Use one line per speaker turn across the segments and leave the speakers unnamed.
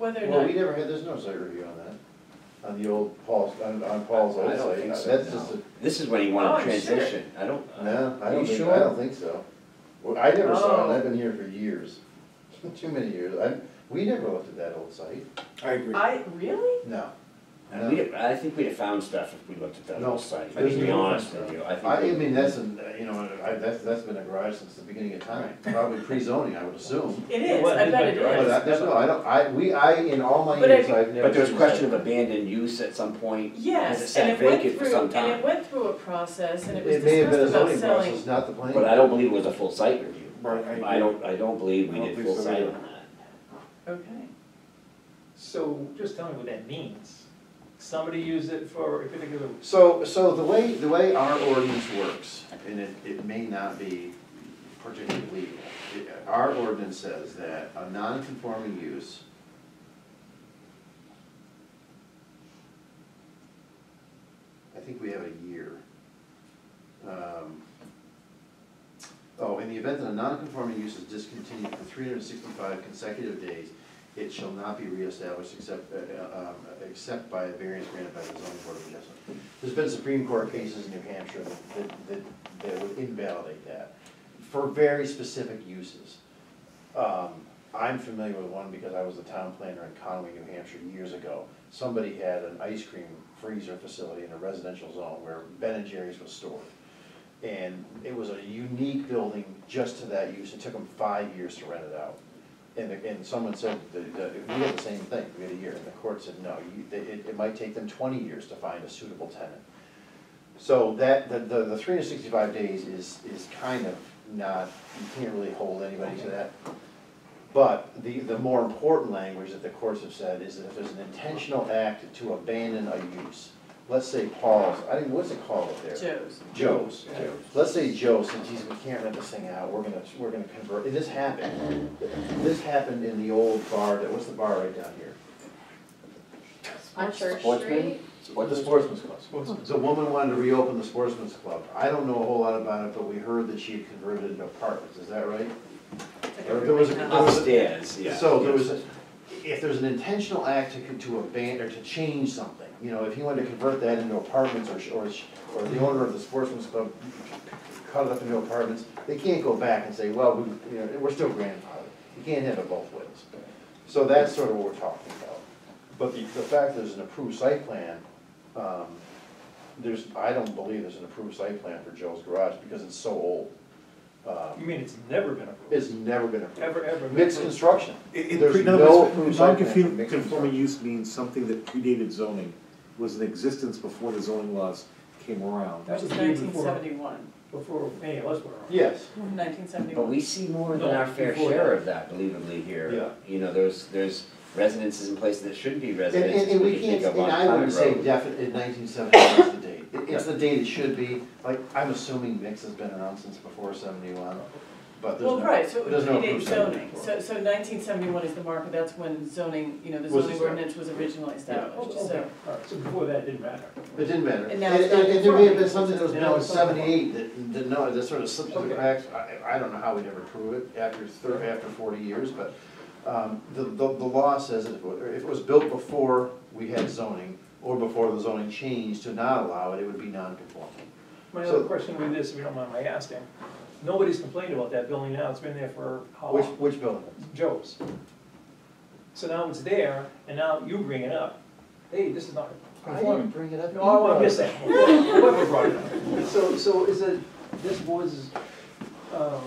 whether
Well,
or
we
not,
never had, there's no site review on that, on the old Paul's, on, on Paul's old
I don't
site,
think so,
that's
no.
just a,
This is when he
Oh,
wanted
I'm sure.
transition, I don't,
no, I
You
don't think,
sure?
I don't think so. Well, I never saw
Oh.
it, I've been here for years, too many years, I, we never looked at that old site,
I agree.
I, really?
no.
and we'd, I think we'd have found stuff if we looked at that
No,
whole site,
there's
to be
no
honest
difference.
with you, I think.
I, I
we-
mean, that's, a- you know, I, that's, that's been a garage since the beginning of time, probably pre-zoning, I would assume.
It
It
is,
was,
I
it's
bet
like
it
garage.
But
is.
I, that's, no, I don't, I, we, I, in all my
But I
years,
think-
I've never.
But there was
seen
question of
something.
abandoned use at some point. 'cause it
Yes,
sat
and it went
vacant for
through,
some
and it
time.
went through a process, and it was
It may have been a
discussed about
zoning
selling.
process, not the planning.
But I don't believe it was a full site review.
Right, I
I don't, I don't believe
I
we
don't
did
think
full
so
site
either.
on that.
Okay,
So just tell me what that means. Somebody used it for a particular,
So, so the way, the way our ordinance works, and it, it may not be particularly legal, it- our ordinance says that a non-conforming use I think we have a year. Um, Oh, in the event that a non-conforming use is discontinued for three hundred and sixty-five consecutive days, it shall not be reestablished except, uh, uh, um, except by a variance granted by the zoning board of adjustment. There's been Supreme Court cases in New Hampshire that, that, that would invalidate that for very specific uses. Um, I'm familiar with one because I was a town planner in Conway, New Hampshire years ago. Somebody had an ice cream freezer facility in a residential zone where Ben and Jerry's was stored. And it was a unique building just to that use. It took them five years to rent it out. And, the- and someone said, that- that we had the same thing, we had a year, and the court said, no, you, it, it- it might take them twenty years to find a suitable tenant. So that, the, the, the three hundred sixty-five days is, is kind of not, you can't really hold anybody to that. But the, the more important language that the courts have said is that if there's an intentional act to abandon a use, let's say Paul's, I think, what's it called up there?
Joe's.
Joe's.
Joe's.
Let's say Joe says, geez, we can't rent this thing out, we're gonna, we're gonna convert, and this happened. This happened in the old bar, that, what's the bar right down here?
On Church
Sportsman?
Street?
What the Sportsman's Club.
Sportsman's.
The woman wanted to reopen the Sportsman's Club. I don't know a whole lot about it, but we heard that she had converted it into apartments, is that right? There- there was a- there was a-
Upstairs, yeah.
So there was, a- if there's an intentional act to, to abandon, or to change something, you know, if he wanted to convert that into apartments or, sh- or, sh- or the owner of the sportsman's club cut it up into apartments, they can't go back and say, well, we, you know, we're still grandfathered. You can't have it both ways. So that's sort of what we're talking about. But the, the fact there's an approved site plan, um, there's, I don't believe there's an approved site plan for Joe's Garage because it's so old.
you
Um,
mean it's never been approved?
It's never been approved.
Ever, ever. been
Mixed
approved?
construction.
It- It,
There's
pre-
no
no,
approved
it's,
site plan for
non-conforming
mixed
conforming
construction.
use means something that predated zoning, was in existence before the zoning laws came around.
That was
Just leave
nineteen
before-
seventy-one,
Before any of us were around.
Yes.
nineteen
But
seventy-one.
we see more than
No,
our fair
before
share
that.
of that, believably, here.
Yeah.
You know, there's, there's residences in places that shouldn't be
And, and,
residences,
and
we
we
can think
can't,
of
and
on
I
Clement
wouldn't say
Road.
definite, in nineteen seventy is the date. It- It's the date it should be, like, I'm assuming mix has been around since before seventy-one, but there's no.
Well, right, so it would
there's no
predate
approved site plan
zoning,
for it.
so, so nineteen seventy-one is the marker, that's when zoning, you know, the zoning
Was established.
ordinance was originally
Oh,
established,
okay,
so.
all right, so before that didn't matter.
It didn't matter.
And
And,
now it's
and- and there may have
non-conforming.
been something that was
Now
built in
it's non-conforming.
seventy-eight that, that no, that sort of slipped through the
Okay.
cracks. I, I don't know how we never prove it after thir, after forty years, but, um, the, the, the law says that if it wa- if it was built before we had zoning or before the zoning changed to not allow it, it would be non-conforming.
My
So-
other question with this, if you don't mind my asking, nobody's complained about that building now, it's been there for how
Which,
long?
which building?
Joe's. So now it's there, and now you bring it up. Hey, this is not
I
conforming.
didn't bring it up.
No, I missed that. Whoever brought it up. So, so is it this board's, um,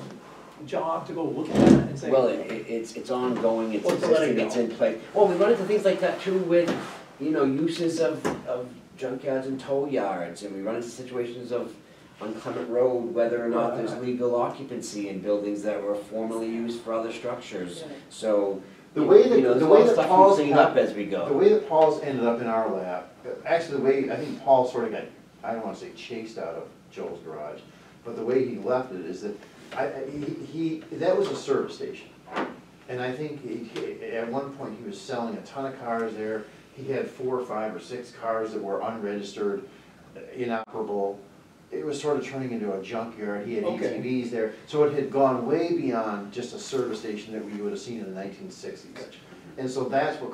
job to go look at that and say?
Well, it, it- it's, it's ongoing, it's
Or to let it
existing, it's
go.
in place. Well, we run into things like that too with, you know, uses of, of junkyards and tow yards, and we run into situations of on Clement Road, whether or not there's legal occupancy in buildings that were formerly used for other structures, so.
The
you-
way that-
you know, there's
the
a
way
lot of
that
stuff we
Paul's
clean
got-
up as we
The
go.
way that Paul's ended up in our lap, actually, the way, I think Paul sort of got, I don't wanna say chased out of Joel's garage, but the way he left it is that, I, I- he, he- that was a service station. And I think he- he, at one point, he was selling a ton of cars there, he had four or five or six cars that were unregistered, inoperable. It was sort of turning into a junkyard, he had
Okay.
ATVs there, so it had gone way beyond just a service station that we would have seen in the nineteen sixties. And so that's what